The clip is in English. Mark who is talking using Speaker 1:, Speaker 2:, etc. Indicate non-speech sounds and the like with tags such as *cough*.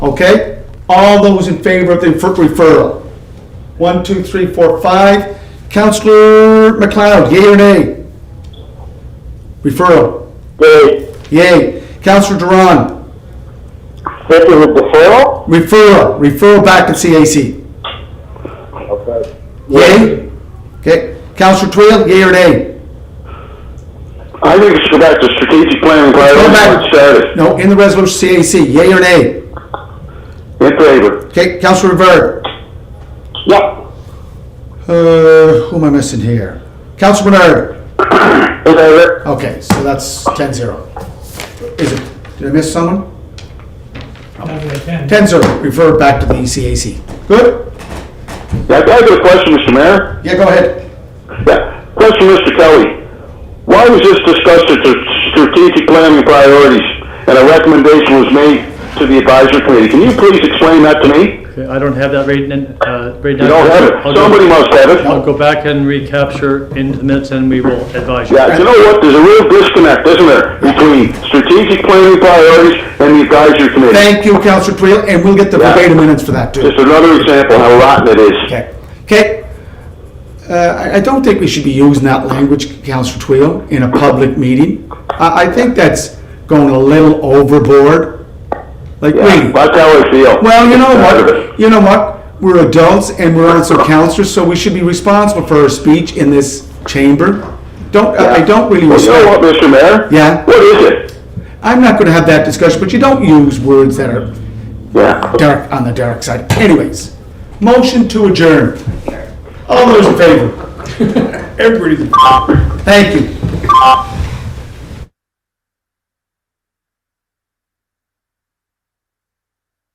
Speaker 1: Okay? All those in favor of the refer- referral? One, two, three, four, five. Counselor McLeod, yea or nay? Referral,
Speaker 2: Yay.
Speaker 1: yea. Counselor Duran,
Speaker 2: This is a deferral?
Speaker 1: referral, referral back to CAC.
Speaker 2: Okay.
Speaker 1: Yea? Okay. Counselor Twill, yea or nay?
Speaker 2: I think it should go back to strategic planning
Speaker 1: Go
Speaker 2: priorities
Speaker 1: back.
Speaker 2: where it started.
Speaker 1: No, in the resolution CAC, yea or nay?
Speaker 2: In favor?
Speaker 1: Okay, Counselor Rivera?
Speaker 2: Yep.
Speaker 1: Uh, who am I missing here? Counselor Bernard?
Speaker 2: In favor?
Speaker 1: Okay, so that's 10-0. Is it, did I miss someone?
Speaker 3: Probably a ten.
Speaker 1: 10-0. refer back to the E ECAC. Good?
Speaker 2: Yeah, can I get a question, Mr. Mayor?
Speaker 1: Yeah, go ahead.
Speaker 2: Yeah. Question, Mr. Kelly. Why was this discussed at the strategic planning priorities and a recommendation was made to the advisory committee? Can you please explain that to me?
Speaker 4: Okay, I don't have that right, n- uh, right now.
Speaker 2: You don't have
Speaker 4: I'll
Speaker 2: it.
Speaker 4: go-
Speaker 2: Somebody must have it.
Speaker 4: I'll go back and recapture into the minutes and we will advise you.
Speaker 2: Yeah, you know what? There's a real disconnect, isn't there, between strategic planning priorities and the advisory committee?
Speaker 1: Thank you, Counselor Twill, and we'll get the
Speaker 2: Yeah.
Speaker 1: verbatim minutes for that too.
Speaker 2: Just another example how rotten it is.
Speaker 1: Okay, okay. Uh, I, I don't think we should be using that language, Counselor Twill, in a public meeting. I, I think that's going a little overboard. Like,
Speaker 2: Yeah,
Speaker 1: wait,
Speaker 2: that's how I feel.
Speaker 1: Well, you know
Speaker 2: Tired of
Speaker 1: what?
Speaker 2: it.
Speaker 1: You know what? We're adults and we're
Speaker 2: *laughs*
Speaker 1: also counselors, so we should be responsible for our speech in this chamber. Don't, I I don't really
Speaker 2: Well, you know what,
Speaker 1: respect.
Speaker 2: Mr. Mayor?
Speaker 1: Yeah.
Speaker 2: What is it?
Speaker 1: I'm not gonna have that discussion, but you don't use words that are
Speaker 2: Yeah.
Speaker 1: dark, on the dark side. Anyways, motion to adjourn. All those in favor? Everybody. Thank you.